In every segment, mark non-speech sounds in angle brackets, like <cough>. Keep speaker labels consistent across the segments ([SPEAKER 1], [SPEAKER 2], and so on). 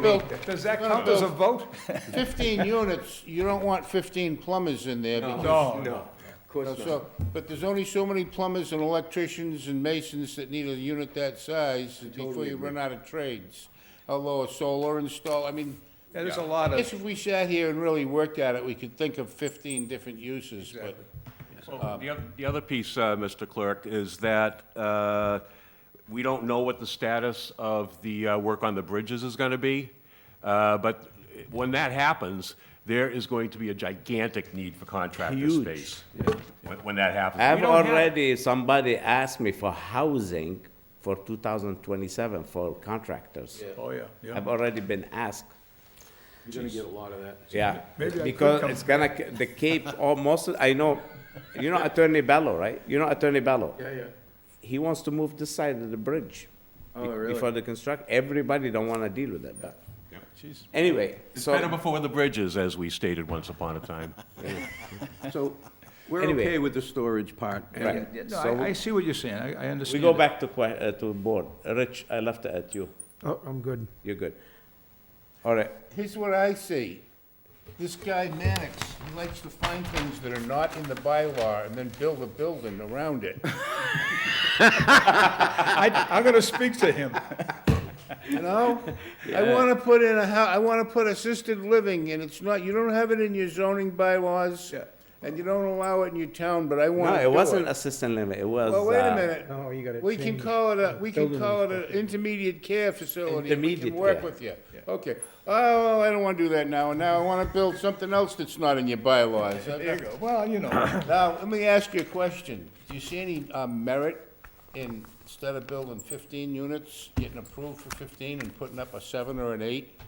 [SPEAKER 1] Bill,
[SPEAKER 2] Does that
[SPEAKER 1] no, no,
[SPEAKER 2] count <laughs> as a
[SPEAKER 1] Bill,
[SPEAKER 2] vote? <laughs>
[SPEAKER 1] Fifteen units, you don't want fifteen plumbers in there because,
[SPEAKER 3] Oh,
[SPEAKER 2] No, no.
[SPEAKER 4] Of course not.
[SPEAKER 1] so, but there's only so many plumbers and electricians and masons that need a unit that size before you run out of trades. Although a solar install, I mean,
[SPEAKER 2] Yeah, There's a lot
[SPEAKER 1] I
[SPEAKER 2] of,
[SPEAKER 1] guess if we sat here and really worked at it, we could think of fifteen different uses, but
[SPEAKER 3] Well, Oh, The oth- the other piece, uh, Mr. Clerk, is that uh, we don't know what the status of the uh, work on the bridges is going to be, Uh, but when that happens, there is going to be a gigantic need for contractor
[SPEAKER 4] Huge.
[SPEAKER 3] space when when that happens. We
[SPEAKER 4] I've
[SPEAKER 3] don't have-
[SPEAKER 4] already, somebody asked me for housing for 2027 for contractors.
[SPEAKER 2] oh, yeah, yeah.
[SPEAKER 4] I've already been asked,
[SPEAKER 5] You're gonna get a lot of that.
[SPEAKER 4] yeah.
[SPEAKER 2] Maybe I could
[SPEAKER 4] Because
[SPEAKER 2] come-
[SPEAKER 4] it's gonna, c- the Cape, almost, I know, you know Attorney Bello, right? You know Attorney Bello?
[SPEAKER 5] Yeah, yeah.
[SPEAKER 4] He wants to move this side of the bridge.
[SPEAKER 5] Oh,
[SPEAKER 4] be-
[SPEAKER 5] really?
[SPEAKER 4] Before the construct, everybody don't wanna deal with it, but. Anyway,
[SPEAKER 3] It's
[SPEAKER 4] so.
[SPEAKER 3] better before the bridges, as we stated once upon a time.
[SPEAKER 5] So, we're
[SPEAKER 4] Anyway.
[SPEAKER 5] okay with the storage part. and-
[SPEAKER 4] Right.
[SPEAKER 2] No,
[SPEAKER 4] So
[SPEAKER 2] I, I see what you're saying, I, I
[SPEAKER 4] We
[SPEAKER 2] understand.
[SPEAKER 4] go
[SPEAKER 2] it.
[SPEAKER 4] back to que, uh, to board. Rich, I left it at you.
[SPEAKER 6] Oh, I'm good.
[SPEAKER 4] You're good. All right.
[SPEAKER 1] here's what I see. This guy Mannix, he likes to find things that are not in the bylaw and then build a building around it.
[SPEAKER 2] I, I'm gonna speak to
[SPEAKER 4] <laughs>
[SPEAKER 2] him.
[SPEAKER 1] You know? I wanna put in a hou- I wanna put assisted living, and it's not, you don't have it in your zoning bylaws,
[SPEAKER 2] Yeah.
[SPEAKER 1] and you don't allow it in your town, but I
[SPEAKER 4] No,
[SPEAKER 1] wanna do it.
[SPEAKER 4] it wasn't assistant living. It was.
[SPEAKER 1] Well, wait a
[SPEAKER 4] uh,
[SPEAKER 1] minute,
[SPEAKER 6] No, you gotta change.
[SPEAKER 1] we can call it a, we can
[SPEAKER 6] Building
[SPEAKER 1] call it an intermediate care facility, and we
[SPEAKER 4] Intermediate
[SPEAKER 1] can work
[SPEAKER 4] care.
[SPEAKER 1] with you. Okay, oh, I don't wanna do that now, and now I wanna build something else that's not in your bylaws.
[SPEAKER 2] There you go, well, you know,
[SPEAKER 1] Now, let me ask you a question. Do you see any uh, merit in, instead of building 15 units, getting approved for 15 and putting up a seven or an eight?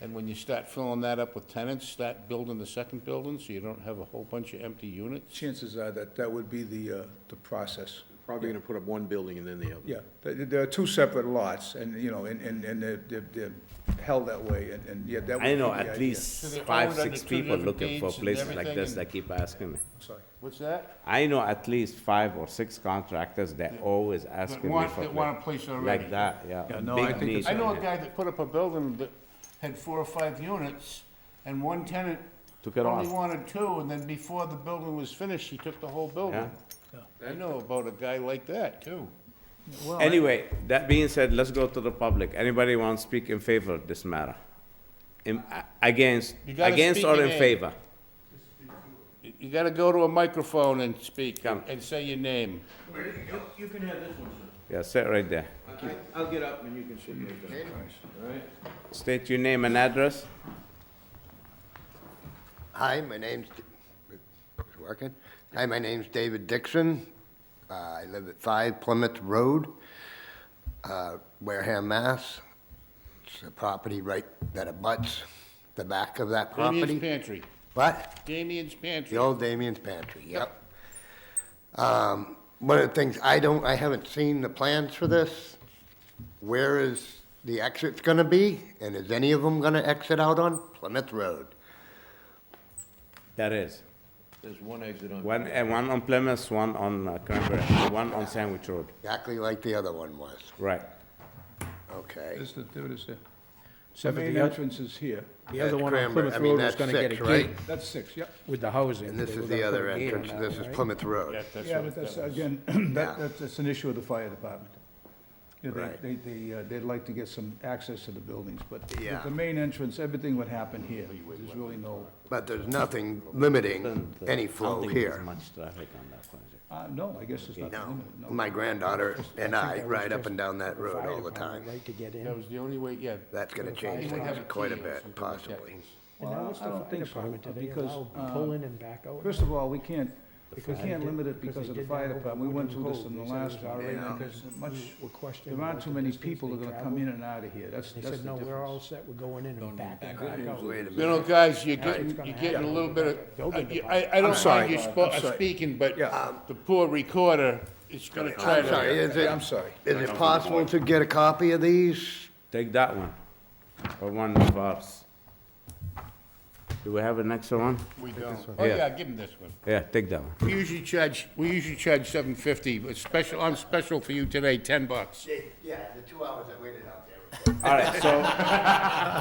[SPEAKER 1] And when you start filling that up with tenants, start building the second building so you don't have a whole bunch of empty units?
[SPEAKER 2] chances are that that would be the, uh, the process.
[SPEAKER 5] Probably gonna put up one building and then the other.
[SPEAKER 2] Yeah, there, there are two separate lots, and, you know, and, and, and they're, they're- they're held that way, and, and, yeah, that would
[SPEAKER 4] I
[SPEAKER 2] be
[SPEAKER 4] know
[SPEAKER 2] the
[SPEAKER 4] at
[SPEAKER 2] idea.
[SPEAKER 1] So
[SPEAKER 4] least
[SPEAKER 1] they're
[SPEAKER 4] five,
[SPEAKER 1] owned under
[SPEAKER 4] six
[SPEAKER 1] two
[SPEAKER 4] people
[SPEAKER 1] different
[SPEAKER 4] looking for
[SPEAKER 1] deeds and
[SPEAKER 4] places like this
[SPEAKER 1] everything.
[SPEAKER 4] that keep asking me.
[SPEAKER 2] Sorry.
[SPEAKER 1] What's that?
[SPEAKER 4] I know at least five or six contractors that always
[SPEAKER 1] That
[SPEAKER 4] asking me
[SPEAKER 1] want,
[SPEAKER 4] for.
[SPEAKER 1] that want a
[SPEAKER 4] pla-
[SPEAKER 1] place already?
[SPEAKER 4] Like that, yeah.
[SPEAKER 2] Yeah, no,
[SPEAKER 4] Big
[SPEAKER 2] I think
[SPEAKER 4] need.
[SPEAKER 2] it's-
[SPEAKER 1] I know a guy that put up a building that had four or five units, and one tenant
[SPEAKER 4] Took it
[SPEAKER 1] only
[SPEAKER 4] off.
[SPEAKER 1] wanted two, and then before the building was finished, he took the whole building. I know about a guy like that, too.
[SPEAKER 4] Anyway, that being said, let's go to the public. Anybody want to speak in favor of this matter? In, a- against,
[SPEAKER 1] You gotta
[SPEAKER 4] against
[SPEAKER 1] speak
[SPEAKER 4] or
[SPEAKER 1] your
[SPEAKER 4] in
[SPEAKER 1] name.
[SPEAKER 4] favor?
[SPEAKER 1] You- You gotta go to a microphone and speak
[SPEAKER 4] Come.
[SPEAKER 1] and say your name.
[SPEAKER 5] You can have this one,
[SPEAKER 4] Yeah, sit right there.
[SPEAKER 5] sir. I'll get up and you can sit there.
[SPEAKER 4] State your name and address.
[SPEAKER 7] Hi, my name's, working? Hi, my name's David Dixon. Uh, I live at 5 Plymouth Road, uh, Wareham, Mass. It's a property right that abuts the back of that
[SPEAKER 1] Damien's
[SPEAKER 7] property.
[SPEAKER 1] Pantry.
[SPEAKER 7] But
[SPEAKER 1] Damien's Pantry.
[SPEAKER 7] the old Damien's Pantry, yep. Um, One of the things, I don't, I haven't seen the plans for this. Where is the exit's gonna be? And is any of them gonna exit out on Plymouth Road?
[SPEAKER 4] That is.
[SPEAKER 5] There's one exit on.
[SPEAKER 4] One, uh, one on Plymouth, one on uh, Cranberry, one on Sandwich Road.
[SPEAKER 7] Exactly like the other one was,
[SPEAKER 4] Right.
[SPEAKER 7] okay?
[SPEAKER 2] There's the, there it is there. The main
[SPEAKER 6] the oth-
[SPEAKER 2] entrance is here,
[SPEAKER 6] The other
[SPEAKER 7] That's
[SPEAKER 6] one on
[SPEAKER 7] Cranberry. I
[SPEAKER 6] Plymouth
[SPEAKER 7] mean,
[SPEAKER 6] Road was
[SPEAKER 7] that's
[SPEAKER 6] gonna get a
[SPEAKER 7] six, right?
[SPEAKER 6] gate
[SPEAKER 2] that's six, yep.
[SPEAKER 6] with the housing.
[SPEAKER 7] And this
[SPEAKER 6] They
[SPEAKER 7] is
[SPEAKER 6] were
[SPEAKER 7] the
[SPEAKER 6] gonna
[SPEAKER 7] other
[SPEAKER 6] put a gate on
[SPEAKER 7] entrance,
[SPEAKER 6] that
[SPEAKER 7] this
[SPEAKER 6] one,
[SPEAKER 7] is
[SPEAKER 6] right?
[SPEAKER 7] Plymouth Road.
[SPEAKER 2] Yeah, but that's, again, <clears throat>
[SPEAKER 7] Yeah.
[SPEAKER 2] that, that's, that's an issue of the fire department. You know, they-
[SPEAKER 7] Right.
[SPEAKER 2] They, they, uh, they'd like to get some access to the buildings, but the-
[SPEAKER 7] Yeah.
[SPEAKER 2] the main entrance, everything would happen here. There's really no,
[SPEAKER 7] But there's nothing limiting
[SPEAKER 4] Doesn't, uh,
[SPEAKER 7] any
[SPEAKER 4] I
[SPEAKER 7] flow
[SPEAKER 4] don't think there's
[SPEAKER 7] here.
[SPEAKER 4] much traffic on that project.
[SPEAKER 2] uh, no, I guess there's nothing
[SPEAKER 7] No,
[SPEAKER 2] limited, no.
[SPEAKER 7] my granddaughter and
[SPEAKER 6] think
[SPEAKER 7] I
[SPEAKER 6] that was
[SPEAKER 7] ride up
[SPEAKER 6] just
[SPEAKER 7] and down that road
[SPEAKER 6] Fire
[SPEAKER 7] all the
[SPEAKER 6] department
[SPEAKER 7] time.
[SPEAKER 6] Right to get in.
[SPEAKER 1] That was the only way, yeah.
[SPEAKER 7] That's gonna change
[SPEAKER 1] would have
[SPEAKER 7] things
[SPEAKER 1] a
[SPEAKER 7] quite a
[SPEAKER 1] key or
[SPEAKER 7] bit,
[SPEAKER 1] something like that.
[SPEAKER 7] possibly.
[SPEAKER 6] And now it's the
[SPEAKER 2] I don't
[SPEAKER 6] fire
[SPEAKER 2] think so,
[SPEAKER 6] department. Do they
[SPEAKER 2] because,
[SPEAKER 6] allow
[SPEAKER 2] uh,
[SPEAKER 6] pull in and back out?
[SPEAKER 2] First of all, we can't, we
[SPEAKER 6] Because they
[SPEAKER 2] can't
[SPEAKER 6] did-
[SPEAKER 2] limit it
[SPEAKER 6] because
[SPEAKER 2] because
[SPEAKER 6] they
[SPEAKER 2] of the
[SPEAKER 6] did
[SPEAKER 2] fire
[SPEAKER 6] that over
[SPEAKER 2] department. We went through this in the
[SPEAKER 6] Wooden Cove. They
[SPEAKER 2] last
[SPEAKER 6] said
[SPEAKER 2] one,
[SPEAKER 6] it's already
[SPEAKER 2] and
[SPEAKER 6] because
[SPEAKER 2] there's much,
[SPEAKER 6] we're questioning
[SPEAKER 2] there aren't
[SPEAKER 6] about
[SPEAKER 2] too
[SPEAKER 6] the
[SPEAKER 2] many
[SPEAKER 6] distance
[SPEAKER 2] people
[SPEAKER 6] they
[SPEAKER 2] that are gonna
[SPEAKER 6] travel.
[SPEAKER 2] come in and out of here. That's,
[SPEAKER 6] They
[SPEAKER 2] that's the
[SPEAKER 6] said, no, we're all
[SPEAKER 2] difference.
[SPEAKER 6] set. We're going in and back and back out.
[SPEAKER 7] Wait a
[SPEAKER 1] You
[SPEAKER 7] minute,
[SPEAKER 1] know, guys, you're getting,
[SPEAKER 6] gonna
[SPEAKER 1] you're getting a
[SPEAKER 6] happen.
[SPEAKER 1] little bit of,
[SPEAKER 6] Building
[SPEAKER 1] I- I, I don't
[SPEAKER 2] sorry.
[SPEAKER 1] mind you spo-
[SPEAKER 2] I'm
[SPEAKER 1] uh,
[SPEAKER 2] sorry.
[SPEAKER 1] speaking, but um,
[SPEAKER 2] Yeah.
[SPEAKER 1] the poor recorder is gonna try
[SPEAKER 7] I'm
[SPEAKER 1] to.
[SPEAKER 7] sorry, is
[SPEAKER 2] I'm
[SPEAKER 7] it,
[SPEAKER 2] sorry.
[SPEAKER 7] is it possible to get a copy of these?
[SPEAKER 4] Take that one, or one of ours. Do we have an extra one?
[SPEAKER 1] We don't. Oh,
[SPEAKER 4] Yeah.
[SPEAKER 1] yeah, give him this one.
[SPEAKER 4] Yeah, take that one.
[SPEAKER 1] We usually charge, we usually charge seven fifty, but special, on special for you today, ten bucks.
[SPEAKER 7] Yeah, the two hours I waited out there
[SPEAKER 4] All right, so